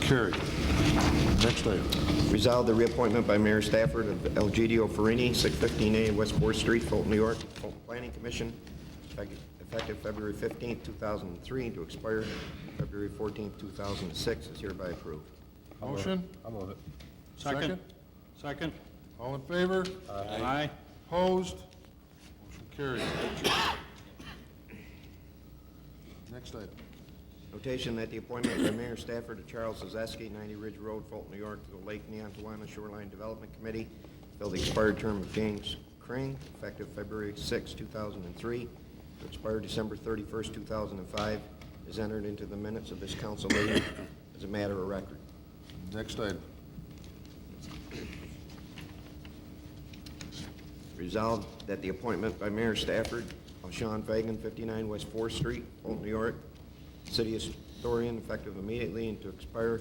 Carried. Next item. Resolve the reappointment by Mayor Stafford of Elgidio Farini, 615A West 4th Street, Fulton, New York, Fulton Planning Commission, effective effective February 15, 2003, to expire February 14, 2006, is hereby approved. Motion? I'll move it. Second. Second. All in favor? Aye. Opposed? Motion carried. Next item. Notation that the appointment by Mayor Stafford of Charles Zazeski, 90 Ridge Road, Fulton, New York, to the Lake Neontawana Shoreline Development Committee, fill the expired term of James Crane, effective February 6, 2003, to expire December 31st, 2005, is entered into the minutes of this council meeting as a matter of record. Next item. Resolved that the appointment by Mayor Stafford of Sean Fagan, 59 West 4th Street, Fulton, New York, city historian, effective immediately and to expire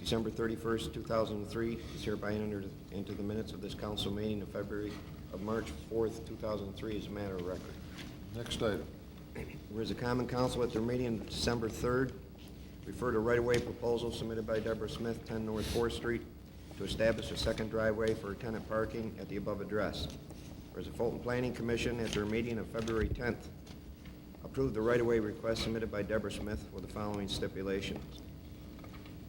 December 31st, 2003, is hereby entered into the minutes of this council meeting of February, of March 4th, 2003, as a matter of record. Next item. Whereas the Common Council at their meeting of December 3rd referred a right-of-way proposal submitted by Deborah Smith, 10 North 4th Street, to establish a second driveway for tenant parking at the above address. Whereas the Fulton Planning Commission at their meeting of February 10th approved the right-of-way request submitted by Deborah Smith with the following stipulations.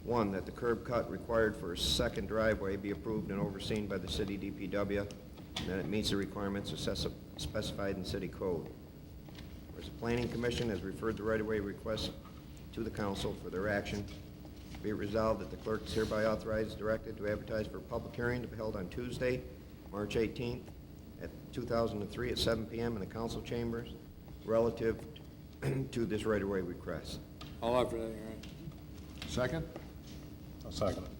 One, that the curb cut required for a second driveway be approved and overseen by the city DPW, and that it meets the requirements assess- specified in city code. Whereas the Planning Commission has referred the right-of-way request to the council for their action, be it resolved that the clerk is hereby authorized, and directed to advertise for a public hearing to be held on Tuesday, March 18th, at 2003 at 7 PM in the council chambers relative to this right-of-way request. I'll offer that, Your Honor. Second. I'll second it.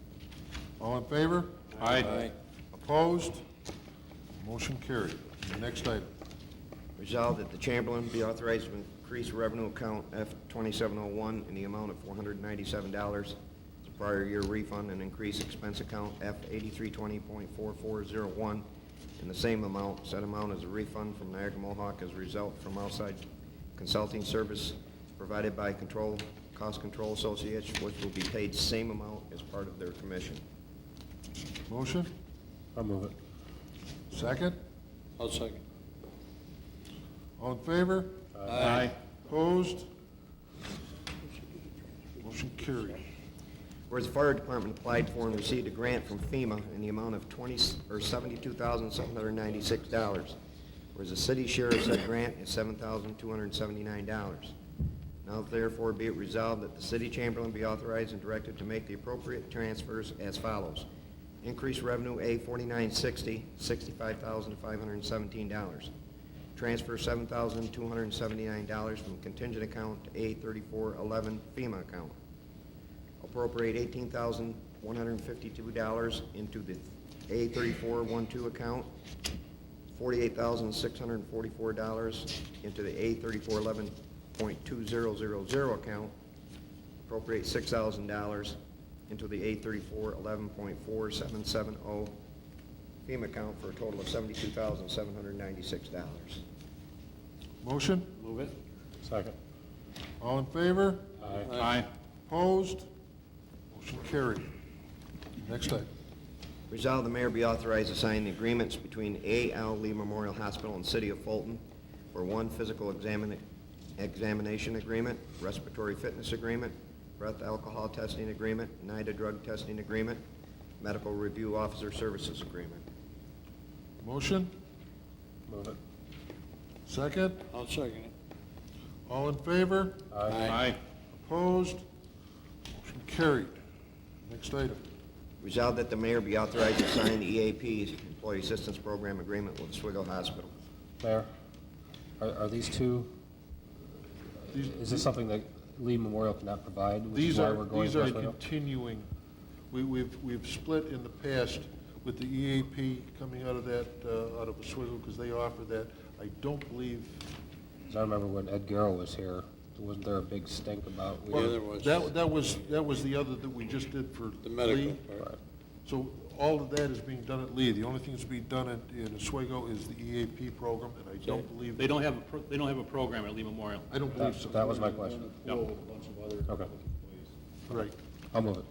All in favor? Aye. Opposed? Motion carried. Next item. Resolved that the Chamberlain be authorized to increase revenue account F-2701 in the amount of $497 as a prior year refund and increase expense account F-8320.4401 in the same amount. Said amount is a refund from Niagara Mohawk as a result from outside consulting service provided by Control, Cost Control Associates, which will be paid same amount as part of their commission. Motion? I'll move it. Second. I'll second. All in favor? Aye. Opposed? Motion carried. Whereas the fire department applied for and received a grant from FEMA in the amount of 20, or $72,796. Whereas the city share of said grant is $7,279. Now therefore be it resolved that the city chamberlain be authorized and directed to make the appropriate transfers as follows. Increase revenue A 4960, $65,517. Transfer $7,279 from contingent account to A 3411 FEMA account appropriate eighteen thousand one hundred and fifty-two dollars into the A thirty-four one-two account, forty-eight thousand six hundred and forty-four dollars into the A thirty-four eleven point two zero zero zero account, appropriate six thousand dollars into the A thirty-four eleven point four seven seven oh FEMA account for a total of seventy-two thousand seven hundred and ninety-six dollars. Motion? Move it. Second. All in favor? Aye. Aye. Opposed? Motion carried. Next item. Resolved, the mayor be authorized to sign the agreements between A.L. Lee Memorial Hospital and City of Fulton for one physical examina- examination agreement, respiratory fitness agreement, breath alcohol testing agreement, NIDA drug testing agreement, medical review officer services agreement. Motion? Move it. Second. I'll second it. All in favor? Aye. Opposed? Motion carried. Next item. Resolved that the mayor be authorized to sign the EAP's Employee Assistance Program Agreement with Oswego Hospital. Mayor, are, are these two, is this something that Lee Memorial cannot provide, which is These why are, we're going these to are Westwood Hill? continuing, we, we've, we've split in the past with the EAP coming out of that, uh, out of Oswego, because they offer that. I don't believe. 'Cause I remember when Ed Garrow was here, wasn't there a big stink about? we- Yeah, there was. That, that was, that was the other that we just did for The medical Lee. part. So all of that is being done at Lee. The only thing that's being done in, in Oswego is the EAP program, and I don't believe. They don't have, a pro- they don't have a program at Lee Memorial. I don't believe so. Oh, That that was my question. No. Okay, Right. I'll move it.